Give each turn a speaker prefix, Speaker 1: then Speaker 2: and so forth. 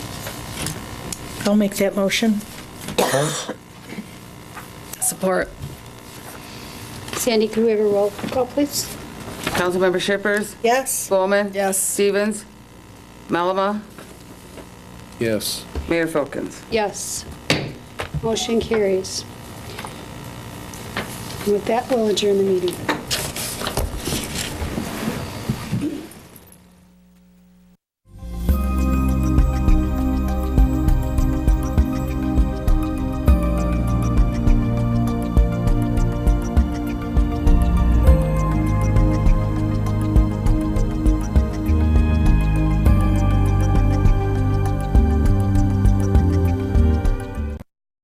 Speaker 1: I'll make that motion.
Speaker 2: Support.
Speaker 3: Sandy, can we have a roll call, please?
Speaker 4: Councilmember Shippers,
Speaker 1: Yes.
Speaker 4: Bowman.
Speaker 2: Yes.
Speaker 4: Stevens, Malama,
Speaker 5: Yes.
Speaker 4: Mayor Folkins.
Speaker 3: Yes. Motion carries. And With that, we'll adjourn the meeting.